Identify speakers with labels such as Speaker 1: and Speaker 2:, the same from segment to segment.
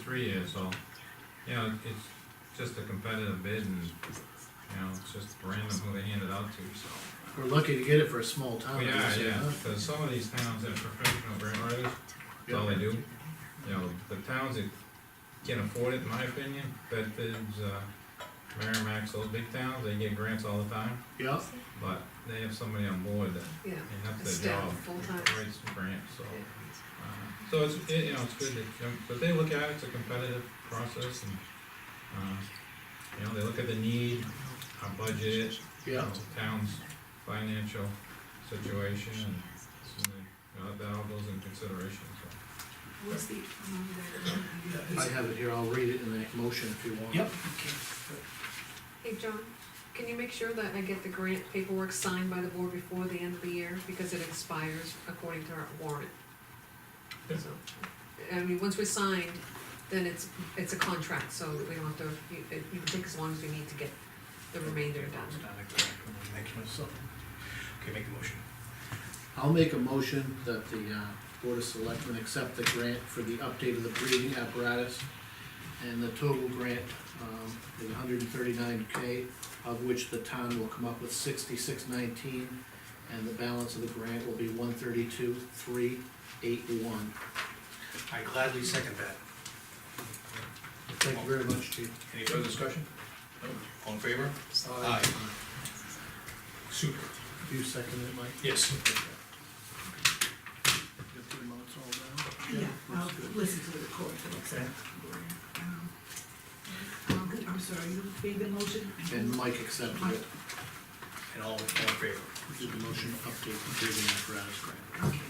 Speaker 1: three years, so, you know, it's just a competitive bid and, you know, it's just random who they hand it out to, so.
Speaker 2: We're lucky to get it for a small town.
Speaker 1: Well,
Speaker 2: I
Speaker 1: Yeah,
Speaker 2: guess,
Speaker 1: yeah,
Speaker 2: huh?
Speaker 1: because some of these towns are professional grant writers, that's all they do. You know, the towns that can afford it, in my opinion, Bedford's, uh, Merrimack's, those big towns, they get grants all the time,
Speaker 2: Yeah,
Speaker 1: but they have somebody on board that,
Speaker 3: Yeah,
Speaker 1: they have
Speaker 3: A
Speaker 1: their
Speaker 3: staff,
Speaker 1: job.
Speaker 3: full-time.
Speaker 1: Writes the grants, so. uh, So it's, it, you know, it's good that, um, but they look at it, it's a competitive process and, uh, you know, they look at the need, our budget, you
Speaker 2: yeah,
Speaker 1: know, town's financial situation and, so they- you know, that all goes in consideration, so.
Speaker 3: What's the, um,
Speaker 2: I have it here, I'll read it in the motion if you want.
Speaker 4: Yep.
Speaker 3: hey, John, can you make sure that I get the grant paperwork signed by the board before the end of the year? Because it expires according to our warrant.
Speaker 1: Yeah.
Speaker 3: So, I mean, once we're signed, then it's, it's a contract, so we don't have to, you- it, you can take as long as we need to get the remainder done.
Speaker 4: It's not a correct one, it makes no sense. Okay, make the motion.
Speaker 2: I'll make a motion that the, uh, Board of Selectmen accept the grant for the update of the breathing apparatus. And the total grant, um, is hundred and thirty-nine K, of which the town will come up with sixty-six nineteen. And the balance of the grant will be one thirty-two, three, eight, one.
Speaker 4: I gladly second that.
Speaker 2: Thank you very much, chief.
Speaker 4: Any further discussion? No? All in favor? Aye. Super.
Speaker 2: You second it, Mike?
Speaker 4: Yes.
Speaker 2: Got the amounts all down?
Speaker 5: Yeah, I'll
Speaker 2: Looks good.
Speaker 5: listen to the recording, exactly. Um, um, good, I'm sorry, you made the motion?
Speaker 2: And Mike accepted
Speaker 5: Mike,
Speaker 2: it,
Speaker 4: And all, all in favor?
Speaker 2: did the motion update the breathing apparatus grant.
Speaker 5: Okay.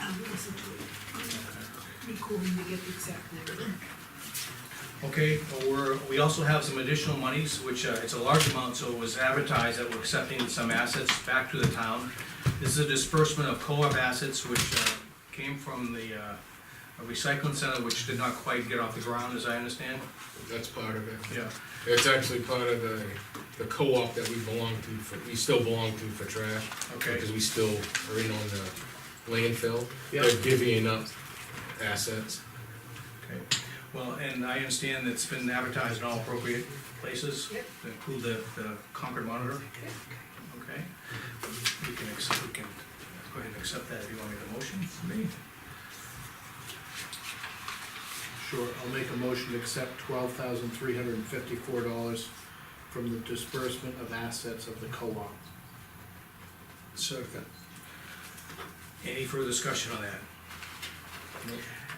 Speaker 5: I'll listen to it. Recording to get the exact number.
Speaker 4: Okay, well, we're, we also have some additional monies, which, uh, it's a large amount, so it was advertised that we're accepting some assets back to the town. This is a disbursement of co-op assets which, uh, came from the, uh, recycling center, which did not quite get off the ground, as I understand.
Speaker 6: That's part of it.
Speaker 4: Yeah.
Speaker 6: It's actually part of the, the co-op that we belong to, for we still belong to for trash.
Speaker 4: Okay,
Speaker 6: Because we still are in on the landfill.
Speaker 2: Yeah.
Speaker 6: They're divvying up assets.
Speaker 4: okay. Well, and I understand it's been advertised in all appropriate places,
Speaker 3: Yep.
Speaker 4: to include the, the Concord monitor, okay? We can, accept- we can go ahead and accept that if you want to make a motion for me.
Speaker 2: Sure, I'll make a motion to accept twelve thousand three hundred and fifty-four dollars from the disbursement of assets of the co-op.
Speaker 4: Second. Any further discussion on that?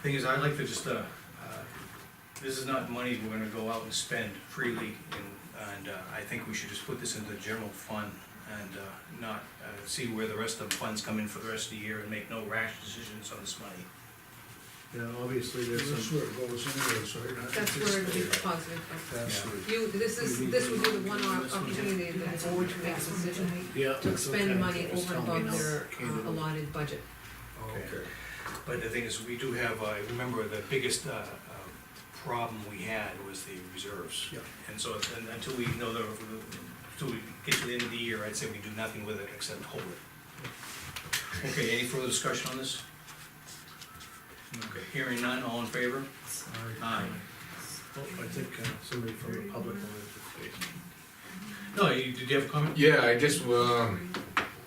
Speaker 4: Thing is, I'd like to just, uh, uh, this is not money we're gonna go out and spend freely, and, and uh, I think we should just put this into the general fund and, uh, not, uh, see where the rest of the funds come in for the rest of the year and make no rash decisions on this money.
Speaker 2: Yeah, obviously there's
Speaker 7: That's
Speaker 2: some,
Speaker 7: where it goes anyway, so you're not.
Speaker 3: That's where it'll be deposited.
Speaker 7: That's where-
Speaker 3: You, this is, this would be the one opportunity that the board to make a decision.
Speaker 2: yeah.
Speaker 3: to expend money
Speaker 2: Just
Speaker 3: over and
Speaker 2: tell me
Speaker 3: above
Speaker 2: now.
Speaker 3: their
Speaker 2: Came
Speaker 3: uh,
Speaker 2: to-
Speaker 3: allotted budget.
Speaker 7: Oh, Okay.
Speaker 4: But the thing is, we do have, uh, remember, the biggest, uh, uh, problem we had was the reserves.
Speaker 7: Yeah.
Speaker 4: And so, and until we know the, until we get to the end of the year, I'd say we do nothing with it except hold it. Okay, any further discussion on this? Okay, hearing none, all in favor? Aye.
Speaker 2: Oh, I think uh, somebody from the public wanted to speak.
Speaker 4: No, you, did you have a comment?
Speaker 6: Yeah, I just, um,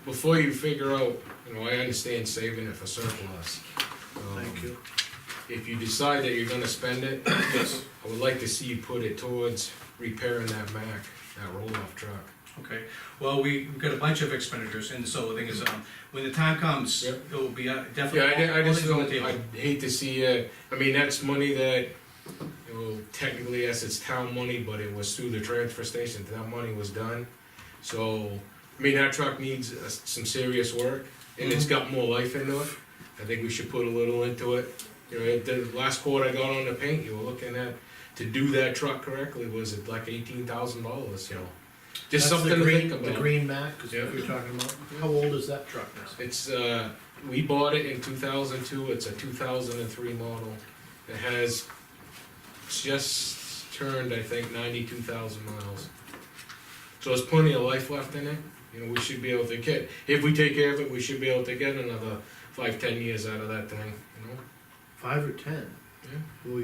Speaker 6: before you figure out, you know, I understand saving it for surplus. Um,
Speaker 2: Thank you.
Speaker 6: If you decide that you're gonna spend it, I would like to see you put it towards repairing that Mack, that roll-off truck.
Speaker 4: Okay, well, we, we've got a bunch of expenditures, and so the thing is, um, when the time comes, it
Speaker 6: Yep.
Speaker 4: will be uh,
Speaker 6: Yeah,
Speaker 4: definitely.
Speaker 6: I, I
Speaker 4: all
Speaker 6: just
Speaker 4: things on the
Speaker 6: don't,
Speaker 4: table.
Speaker 6: I hate to see, uh, I mean, that's money that, you know, technically, yes, it's town money, but it was through the transfer station, that money was done. So, I mean, that truck needs uh, some serious work, and
Speaker 2: Mm-hmm.
Speaker 6: it's got more life into it, I think we should put a little into it. You know, it- the last quote I got on the paint, you were looking at, to do that truck correctly was it like eighteen thousand dollars, you know?
Speaker 2: That's the
Speaker 6: Just something to
Speaker 2: green-
Speaker 6: think about.
Speaker 2: The green Mac, is
Speaker 6: Yeah.
Speaker 2: what you're talking about. How old is that truck now?
Speaker 6: It's, uh, we bought it in two thousand two, it's a two thousand and three model. It has just turned, I think, ninety-two thousand miles. So there's plenty of life left in it, you know, we should be able to get, if we take care of it, we should be able to get another five, ten years out of that thing, you know?
Speaker 2: Five or ten?
Speaker 6: Yeah.
Speaker 1: Will we